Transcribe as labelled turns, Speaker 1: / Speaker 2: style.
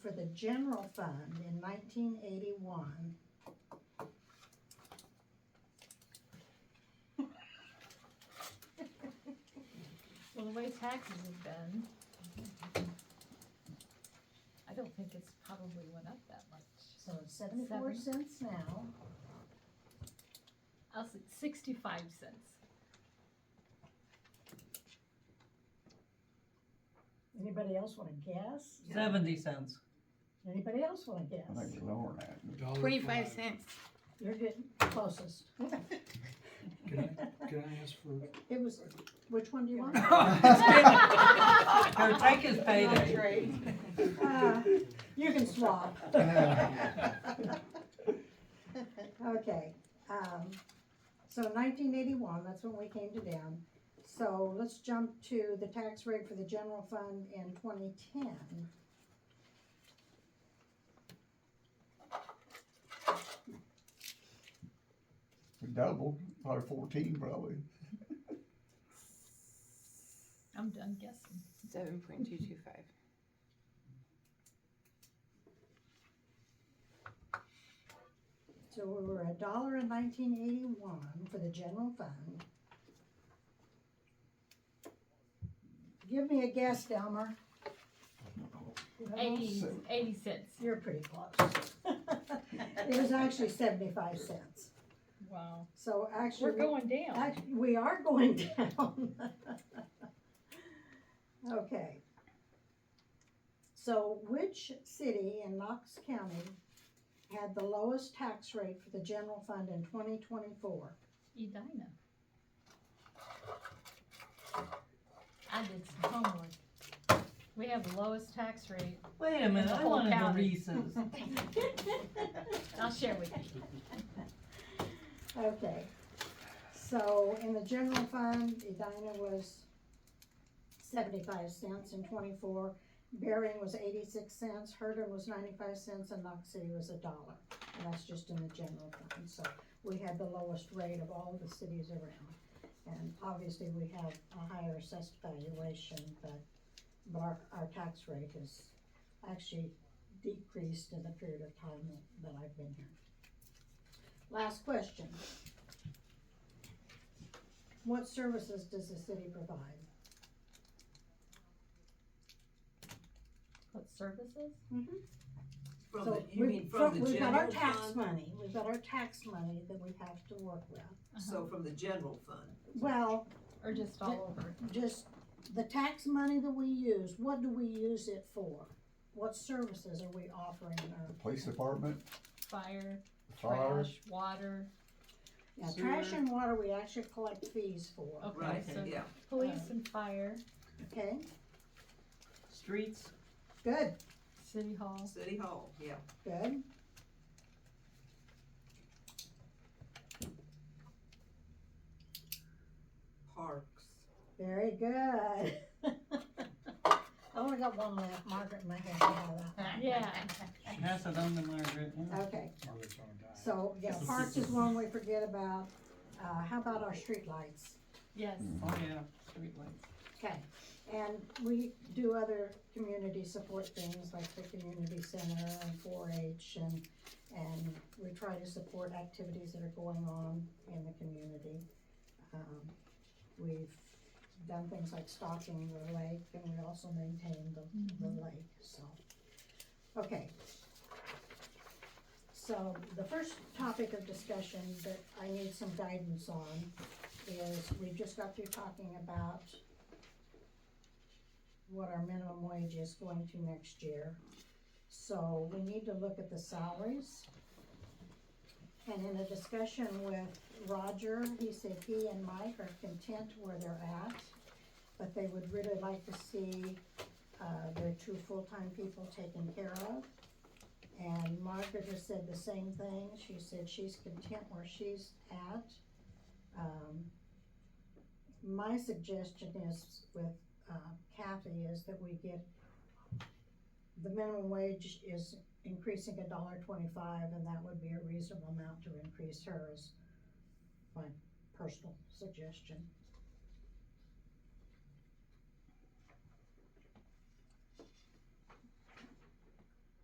Speaker 1: general fund in nineteen eighty-one.
Speaker 2: Well, the way taxes have been, I don't think it's probably went up that much.
Speaker 1: So it's seventy-four cents now,
Speaker 2: I'll say sixty-five cents.
Speaker 1: anybody else wanna guess?
Speaker 3: Seventy cents.
Speaker 1: Anybody else wanna
Speaker 4: I think
Speaker 1: guess?
Speaker 4: it's lower than
Speaker 5: Dollar
Speaker 6: Twenty-five
Speaker 5: five.
Speaker 6: cents.
Speaker 1: You're getting closest.
Speaker 5: Can I, can I ask for,
Speaker 1: It was, which one do you want?
Speaker 4: that.
Speaker 3: Here, take his payday.
Speaker 1: Uh, You can swap. Okay, um, so nineteen eighty-one, that's when we came to them. So let's jump to the tax rate for the general fund in twenty ten.
Speaker 4: We doubled, probably fourteen probably.
Speaker 2: I'm done guessing.
Speaker 6: Seven point two two five.
Speaker 1: So we were a dollar in nineteen eighty-one for the general fund. Give me a guess, Delmer. You know,
Speaker 2: Eighty,
Speaker 4: so-
Speaker 2: eighty cents.
Speaker 1: You're pretty close. It was actually seventy-five cents.
Speaker 2: Wow.
Speaker 1: So
Speaker 2: We're
Speaker 1: actually, we-
Speaker 2: going down.
Speaker 1: act- we are going down. Okay. So which city in Knox County had the lowest tax rate for the general fund in twenty twenty-four?
Speaker 2: Edina. I did some homework. We have the lowest tax rate.
Speaker 3: Wait a minute, I
Speaker 2: Whole
Speaker 3: wanted the
Speaker 2: county.
Speaker 3: Reese's.
Speaker 2: I'll share with you.
Speaker 1: Okay, so in the general fund, Edina was seventy-five cents and twenty-four, Bering was eighty-six cents, Herndon was ninety-five cents, and Knox City was a dollar. And that's just in the general fund, so we had the lowest rate of all the cities around. And obviously, we have a higher assessed valuation, but, but our, our tax rate has actually decreased in the period of time that- that I've been here. Last question. What services does the city provide?
Speaker 2: What services?
Speaker 7: From
Speaker 1: So
Speaker 7: the, you
Speaker 1: we-
Speaker 7: mean from the
Speaker 1: We've got our
Speaker 7: general
Speaker 1: tax
Speaker 7: fund?
Speaker 1: money, we've got our tax money that we have to work with.
Speaker 7: So from the general fund,
Speaker 1: Well,
Speaker 2: Uh-huh. Or just all over?
Speaker 1: just the tax money that we use, what do we use it for? What services are we offering our?
Speaker 4: Police department,
Speaker 2: Fire,
Speaker 4: fire,
Speaker 2: trash, water,
Speaker 1: Now, trash
Speaker 7: Sewer.
Speaker 1: and water, we actually collect fees for,
Speaker 2: okay,
Speaker 7: right,
Speaker 2: so
Speaker 7: yeah.
Speaker 2: police and fire,
Speaker 1: okay?
Speaker 3: Streets,
Speaker 1: Good,
Speaker 2: city hall.
Speaker 7: City Hall, yeah.
Speaker 1: good.
Speaker 7: Parks.
Speaker 1: Very good. I only got one left, Margaret might have to have that.
Speaker 2: Yeah,
Speaker 3: pass it on to Margaret. yeah.
Speaker 1: Okay,
Speaker 5: Margaret's on a diet.
Speaker 1: so, yeah, parks is one we forget about, uh, how about our streetlights?
Speaker 2: yes.
Speaker 3: Oh, yeah, streetlights.
Speaker 1: Okay, and we do other community support things like the community center and four H and, and we try to support activities that are going on in the community. Um, We've done things like stocking the lake and we also maintain the, the lake, so. Okay. So the first topic of discussion that I need some guidance on is we just got through talking about what our minimum wage is going to next year. So we need to look at the salaries. And in a discussion with Roger, he said he and Mike are content where they're at, but they would really like to see, uh, their two full-time people taken care of. And Margaret has said the same thing, she said she's content where she's at. Um, my suggestion is with uh, Kathy is that we get, the minimum wage is increasing a dollar twenty-five, and that would be a reasonable amount to increase hers. My personal suggestion.